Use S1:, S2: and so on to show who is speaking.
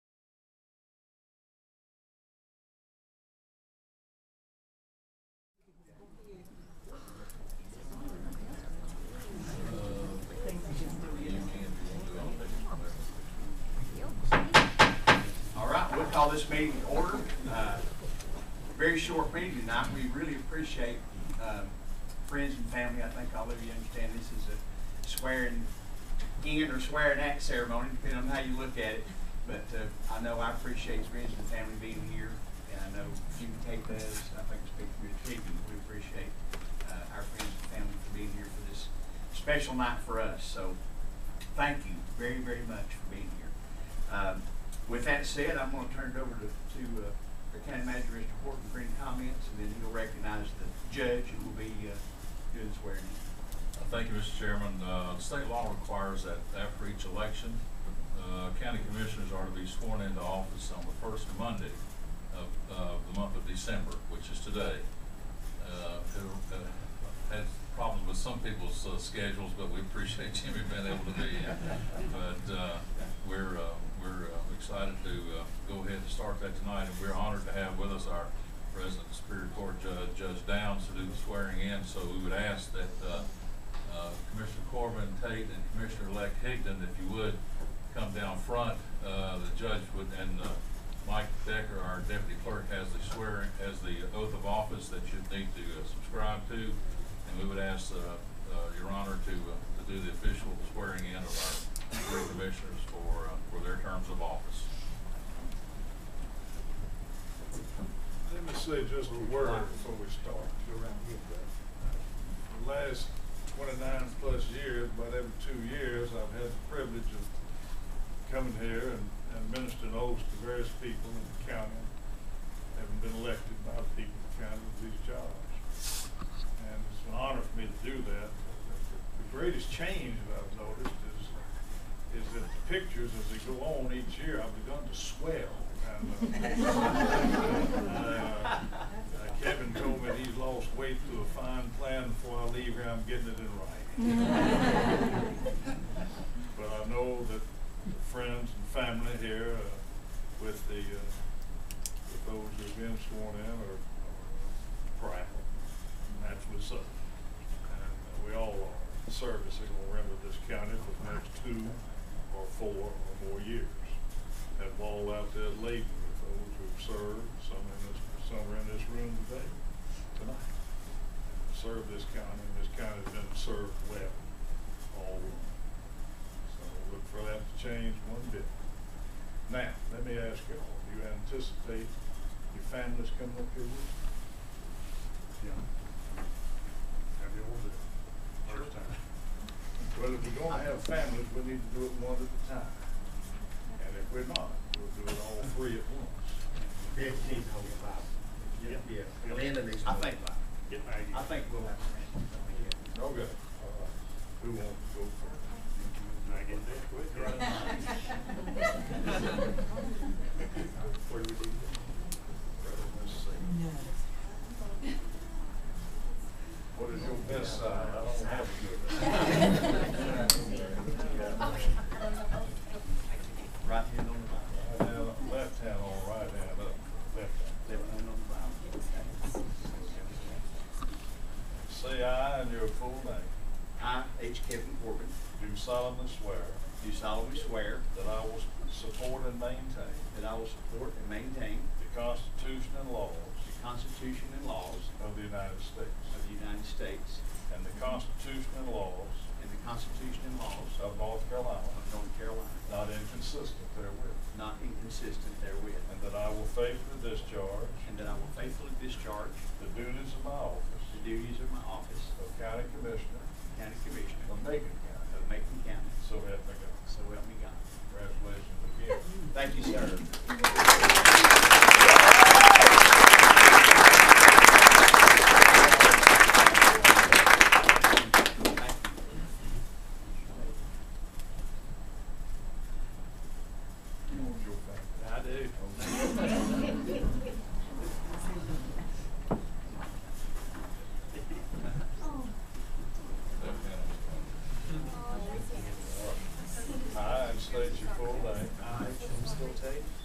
S1: Call this meeting to order. Uh, Very short meeting tonight. We really appreciate um, friends and family. I think all of you understand this is a swearing in or swearing at ceremony, depending on how you look at it. But uh, I know I appreciate friends and family being here, and I know you can take that as, I think, speak for your team. We appreciate uh, our friends and family for being here for this special night for us. So thank you very, very much for being here. Um, With that said, I'm going to turn it over to, to uh, the county manager, Mr. Horton, for any comments, and then he'll recognize the judge who will be uh, doing the swearing.
S2: Uh, Thank you, Mr. Chairman. Uh, state law requires that after each election, uh, county commissioners are to be sworn into office on the first Monday of, of the month of December, which is today. Uh, who, uh, had problems with some people's, uh, schedules, but we appreciate Jimmy being able to be in. But, uh, we're, uh, we're uh, excited to, uh, go ahead and start that tonight, and we're honored to have with us our resident Superior Court Judge, Judge Downs, to do the swearing in, so we would ask that, uh, uh, Commissioner Corbin Tate and Commissioner-elect Higdon, if you would, come down front. Uh, The judge would, and uh, Mike Decker, our deputy clerk, has the swearing, has the oath of office that you need to uh, subscribe to. And we would ask uh, uh, Your Honor to, uh, to do the official swearing in of our three commissioners for, uh, for their terms of office.
S3: Let me say just a word before we start, go around and get that. The last twenty-nine plus years, about every two years, I've had the privilege of coming here and, and ministering oaths to various people in the county, having been elected by the people of the county to these jobs. And it's an honor for me to do that. The greatest change that I've noticed is, is that the pictures, as they go on each year, I've begun to swell. And, uh, uh, Kevin told me that he's lost weight through a fine plan before I leave here, I'm getting it in writing. But I know that the friends and family here uh, with the, uh, with those who've been sworn in are are proud, and naturally so. And we all are, service is gonna render this county for the next two or four or more years. That ball out there laden with those who've served, some in this, some are in this room today, tonight. Served this county, and this county's been served well all along. So look for that to change one bit. Now, let me ask you all, do you anticipate your families coming up here with you? Yeah. Have you all been? First time. Well, if we're gonna have families, we need to do it one at a time. And if we're not, we'll do it all three at once.
S4: Fifteen hold five.
S3: Yeah.
S4: Yeah, Landon is.
S1: I think,
S3: Get back.
S1: I think we'll have friends.
S3: Okay, all right. Who wants to go first? I get that quick, Where do we do? Right on this side. What is your best side? I don't have a good. one.
S1: Right hand on the
S3: Right hand up, Left hand on, right hand up, left hand.
S1: Bible. Left hand on the Bible.
S3: Say aye and your full name.
S1: I, H. Kevin Corbin,
S3: Do solemnly swear
S1: do solemnly swear
S3: that I will support and maintain
S1: that I will support and maintain
S3: the Constitution and laws
S1: the Constitution and laws
S3: of the United States.
S1: of the United States
S3: And the Constitution and laws
S1: and the Constitution and laws
S3: of North Carolina,
S1: of North Carolina,
S3: not inconsistent therewith.
S1: not inconsistent therewith,
S3: And that I will faithfully discharge
S1: and that I will faithfully discharge
S3: the duties of my office
S1: the duties of my office
S3: of County Commissioner
S1: of County Commissioner
S3: of Macon County.
S1: of Macon County,
S3: So help me God.
S1: so help me God.
S3: Congratulations again.
S1: Thank you, sir.
S3: You want your family? I do.